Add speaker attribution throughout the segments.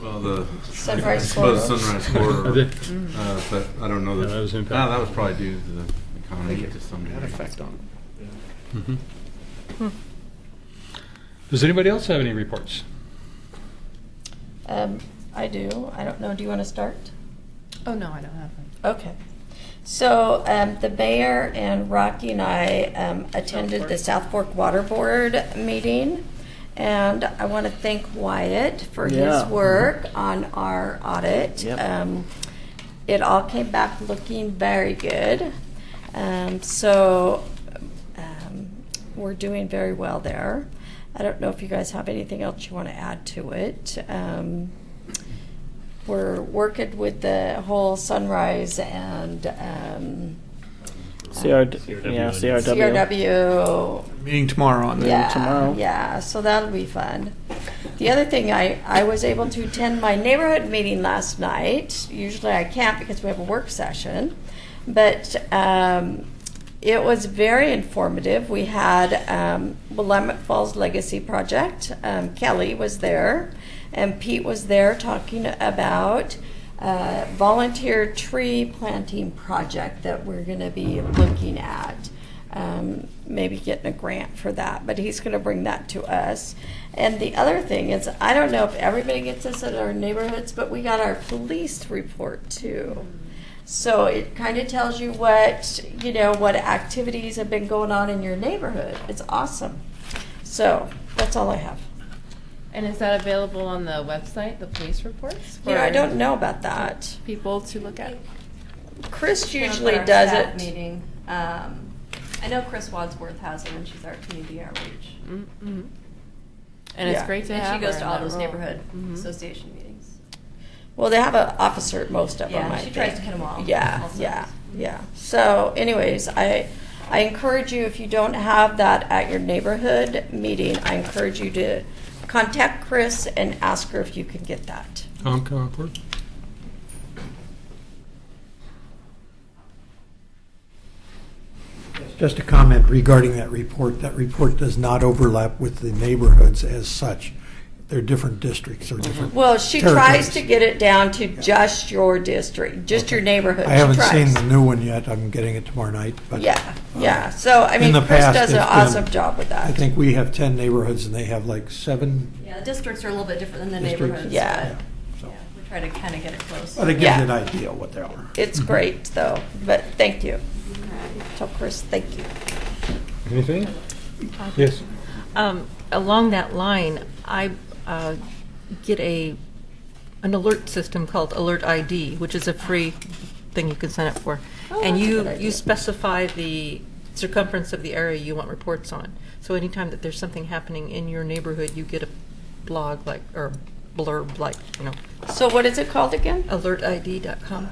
Speaker 1: Well, the
Speaker 2: Sunrise
Speaker 1: I suppose
Speaker 2: Corridor.
Speaker 1: Sunrise Corridor,
Speaker 2: Mm.
Speaker 1: uh, but I don't know
Speaker 3: Yeah,
Speaker 1: that.
Speaker 3: that was
Speaker 1: no,
Speaker 3: impacted.
Speaker 1: that was probably due to the
Speaker 4: I
Speaker 1: economy
Speaker 4: think it
Speaker 1: to some
Speaker 4: had
Speaker 1: degree.
Speaker 4: effect on it.
Speaker 3: Mhm.
Speaker 2: Hmm.
Speaker 3: Does anybody else have any reports?
Speaker 2: Um, I do. I don't know. Do you want to start?
Speaker 5: Oh, no, I don't have one.
Speaker 2: Okay. So um, the mayor and Rocky and I um, attended the South Fork Water Board meeting. And I want to thank Wyatt for his
Speaker 4: Yeah.
Speaker 2: work on our audit.
Speaker 4: Yep.
Speaker 2: Um, it all came back looking very good. Um, so um, we're doing very well there. I don't know if you guys have anything else you want to add to it. Um, we're working with the whole sunrise and um,
Speaker 6: CR,
Speaker 3: CRW.
Speaker 6: yeah, CRW.
Speaker 2: CRW.
Speaker 4: Meeting tomorrow on that.
Speaker 2: Yeah,
Speaker 6: tomorrow.
Speaker 2: yeah. So that'll be fun. The other thing, I I was able to attend my neighborhood meeting last night. Usually I can't because we have a work session, but um, it was very informative. We had um, Willamette Falls Legacy Project. Um, Kelly was there, and Pete was there talking about uh, volunteer tree planting project that we're going to be looking at. Um, maybe getting a grant for that, but he's going to bring that to us. And the other thing is, I don't know if everybody gets this at our neighborhoods, but we got our police report too. So it kind of tells you what, you know, what activities have been going on in your neighborhood. It's awesome. So that's all I have.
Speaker 5: And is that available on the website, the police reports?
Speaker 2: You know, I
Speaker 5: for
Speaker 2: don't know about that.
Speaker 5: People to look at?
Speaker 2: Chris
Speaker 7: One of
Speaker 2: usually
Speaker 7: our
Speaker 2: does
Speaker 7: staff
Speaker 2: it.
Speaker 7: Meeting. Um, I know Chris Wadsworth has it, and she's our community outreach.
Speaker 5: Mm, mhm. And it's
Speaker 2: Yeah.
Speaker 5: great to have
Speaker 7: Mm-hmm. And she goes
Speaker 5: her
Speaker 7: to
Speaker 5: in
Speaker 7: all
Speaker 5: that
Speaker 7: those
Speaker 5: role.
Speaker 7: neighborhood
Speaker 5: Mhm.
Speaker 7: association meetings.
Speaker 2: Well, they have an officer at most of them.
Speaker 7: Yeah,
Speaker 2: I
Speaker 7: she tries
Speaker 2: think.
Speaker 7: to hit 'em all,
Speaker 2: Yeah,
Speaker 7: all
Speaker 2: yeah,
Speaker 7: sides.
Speaker 2: yeah. So, anyways, I I encourage you if you don't have that at your neighborhood meeting, I encourage you to contact Chris and ask her if you can get that.
Speaker 3: Tom, come on board.
Speaker 8: Just a comment regarding that report. That report does not overlap with the neighborhoods as such. They're different districts or different.
Speaker 2: Well, she tries
Speaker 8: Territories.
Speaker 2: to get it down to just your district, just your neighborhood.
Speaker 8: I
Speaker 2: She
Speaker 8: haven't seen
Speaker 2: tries.
Speaker 8: the new one yet. I'm getting it tomorrow night, but.
Speaker 2: Yeah,
Speaker 8: uh,
Speaker 2: yeah. So I
Speaker 8: in
Speaker 2: mean,
Speaker 8: the
Speaker 2: Chris
Speaker 8: past,
Speaker 2: does an
Speaker 8: it's been-
Speaker 2: awesome job with that.
Speaker 8: I think we have 10 neighborhoods and they have like seven.
Speaker 7: Yeah, the districts are a little bit different than the
Speaker 8: Districts.
Speaker 7: neighborhoods.
Speaker 2: Yeah.
Speaker 7: but,
Speaker 8: so.
Speaker 7: yeah, We try to kind of get it close.
Speaker 8: But it gives
Speaker 2: Yeah.
Speaker 8: you an idea what they are. Mhm.
Speaker 2: it's great though. But thank you. Tell Chris thank you.
Speaker 3: Anything? Yes.
Speaker 9: Um, Along that line, I uh, get a, an alert system called Alert ID, which is a free thing you can sign up for.
Speaker 2: Oh,
Speaker 9: And
Speaker 2: that's a
Speaker 9: you,
Speaker 2: good idea.
Speaker 9: you specify the circumference of the area you want reports on. So anytime that there's something happening in your neighborhood, you get a blog like, or blurb like, you know,
Speaker 2: So what is it called again?
Speaker 9: alertid.com.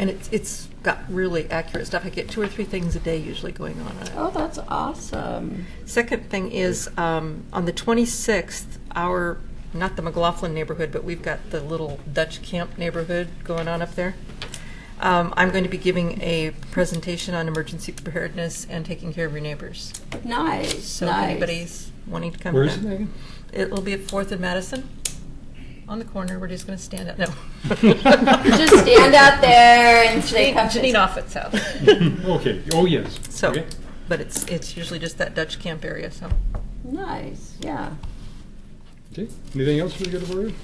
Speaker 9: And it's, it's got really accurate stuff. I get two or three things a day usually going on on it.
Speaker 2: Oh, that's awesome.
Speaker 9: Second thing is, um, on the 26th, our, not the McLaughlin neighborhood, but we've got the little Dutch camp neighborhood going on up there. Um, I'm going to be giving a presentation on emergency preparedness and taking care of your neighbors.
Speaker 2: Nice.
Speaker 9: So if
Speaker 2: nice.
Speaker 9: anybody's wanting to come.
Speaker 3: Where is it
Speaker 9: down-
Speaker 3: again?
Speaker 9: It'll be at Fourth and Madison, on the corner. We're just going to stand up, no.
Speaker 2: Just stand out there and say, "Come to-"
Speaker 9: Janine Offit's house.
Speaker 3: Okay, oh, yes.
Speaker 9: So,
Speaker 3: Okay.
Speaker 9: but it's, it's usually just that Dutch camp area, so.
Speaker 2: Nice. Yeah.
Speaker 3: Okay, anything else for the good of the order?